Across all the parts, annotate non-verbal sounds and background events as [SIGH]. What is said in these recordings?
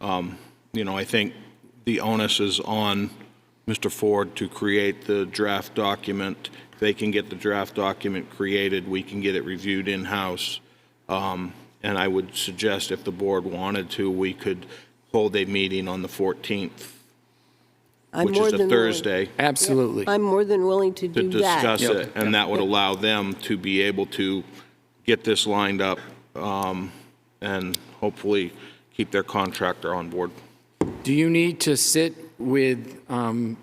Um, You know, I think the onus is on Mr. Ford to create the draft document. If They can get the draft document created, we can get it reviewed in-house. Um, And I would suggest if the board wanted to, we could hold a meeting on the 14th, I'm which more is a than willing- Thursday. Absolutely. I'm more than willing to to do discuss that. it, and that would allow them to be able to get this lined up um, and hopefully keep their contractor on board. Do you need to sit with um,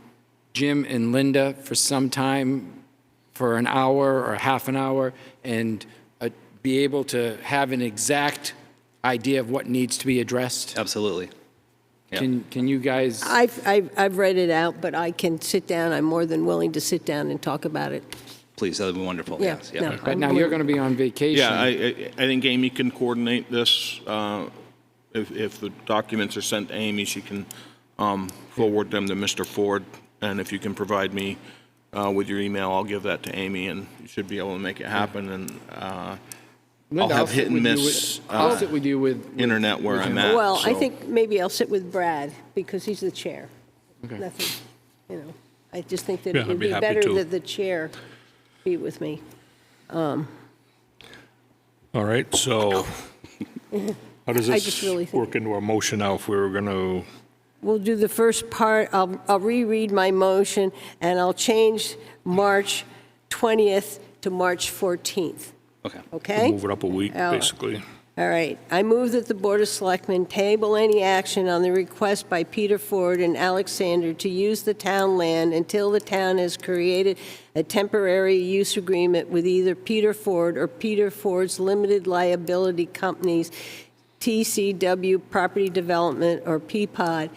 Jim and Linda for some time, for an hour or half an hour, and uh, be able to have an exact idea of what needs to be addressed? Absolutely. yeah. Can, can you guys, I've, I've, I've read it out, but I can sit down, I'm more than willing to sit down and talk about it. Please, that would be wonderful. Yeah, Yes. no. but now you're going to be on vacation? Yeah, I, I I think Amy can coordinate this. uh, If, if the documents are sent to Amy, she can um, forward them to Mr. Ford, and if you can provide me uh, with your email, I'll give that to Amy, and you should be able to make it happen, and uh, I'll Linda, have sit hit and with you miss with- I'll uh, sit with you with. with- internet where with I'm him. at. Well, I Uh, so- think maybe I'll sit with Brad, because he's the chair. Nothing, you know, I just think that Yeah, it I'd would be be happy better to. that the chair be with me. All right, [LAUGHS] so how does I just really this think- work into our motion now if we were going to, We'll do the first part, I'll, I'll reread my motion, and I'll change March 20th to March 14th, Okay. okay? move it up a week, Oh. basically? All right. I move that the Board of Selectmen table any action on the request by Peter Ford and Alexander to use the town land until the town has created a temporary use agreement with either Peter Ford or Peter Ford's limited liability companies, TCW Property Development or Peapod,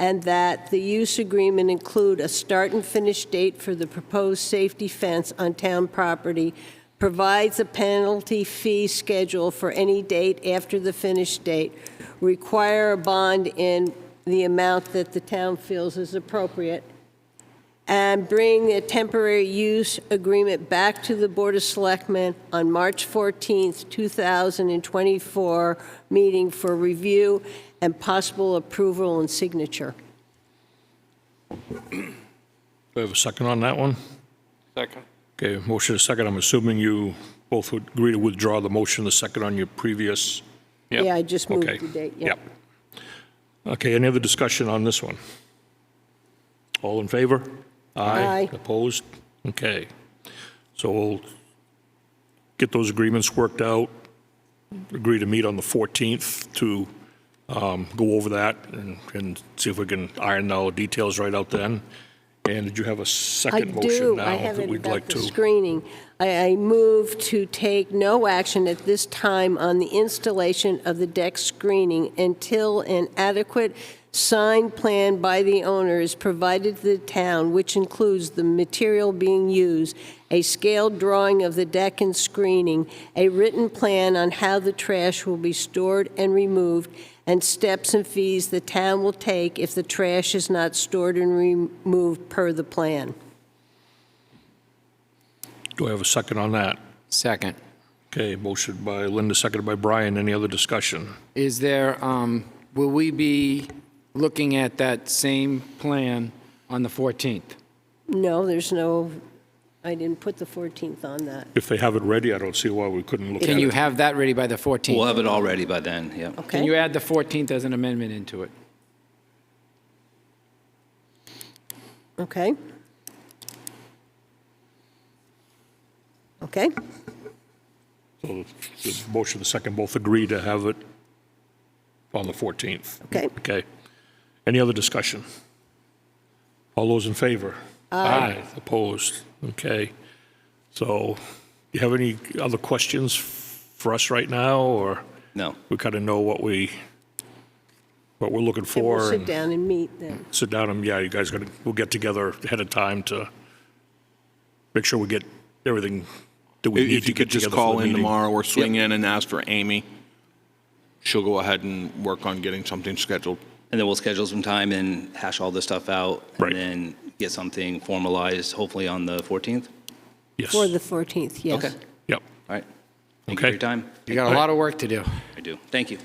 and that the use agreement include a start and finish date for the proposed safety fence on town property, provides a penalty fee schedule for any date after the finish date, require a bond in the amount that the town feels is appropriate, and bring a temporary use agreement back to the Board of Selectmen on March 14th, 2024, meeting for review and possible approval and signature. Do I have a second on that one? Second. Okay, motion is second. I'm assuming you both would agree to withdraw the motion, the second on your previous. Yeah, I just moved Okay. the date, yeah. Yep. Okay, any other discussion on this one? All in favor? Aye. Opposed? Okay. So we'll get those agreements worked out, agree to meet on the 14th to um, go over that and- and see if we can iron all the details right out then. And did you have a I second motion do, I now have that it we'd about like the to? screening. I, I move to take no action at this time on the installation of the deck screening until an adequate sign plan by the owner is provided to the town, which includes the material being used, a scaled drawing of the deck and screening, a written plan on how the trash will be stored and removed, and steps and fees the town will take if the trash is not stored and removed per the plan. Do I have a second on that? Second. Okay, motion by Linda, seconded by Brian. Any other discussion? Is there, um, will we be looking at that same plan on the 14th? No, there's no, I didn't put the 14th on that. If they have it ready, I don't see why we couldn't look at it. Can you have that ready by the We'll 14th? have it all ready by then. Yeah. Okay. Can you add the 14th as an amendment into it? Okay. Okay, So the the motion, the second, both agree to have it on the 14th. Okay. Okay. Any other discussion? All those in favor? Aye. Opposed? Okay. So you have any other questions for us right now, or No. we kind of know what we, what we're looking and for? we'll sit and down and meet then. Sit down and, yeah, you guys got to, we'll get together ahead of time to make sure we get everything that we need If to you get could just together for the call in meeting. tomorrow or swing in and ask for Amy, she'll go ahead and work on getting something scheduled. And then we'll schedule some time and hash all this stuff out. Right. And then get something formalized, hopefully on the 14th. Yes. For the 14th, yes. Okay. Yep. All right. Thank you for Okay. your time. You got a lot of work to do. I do. Thank you.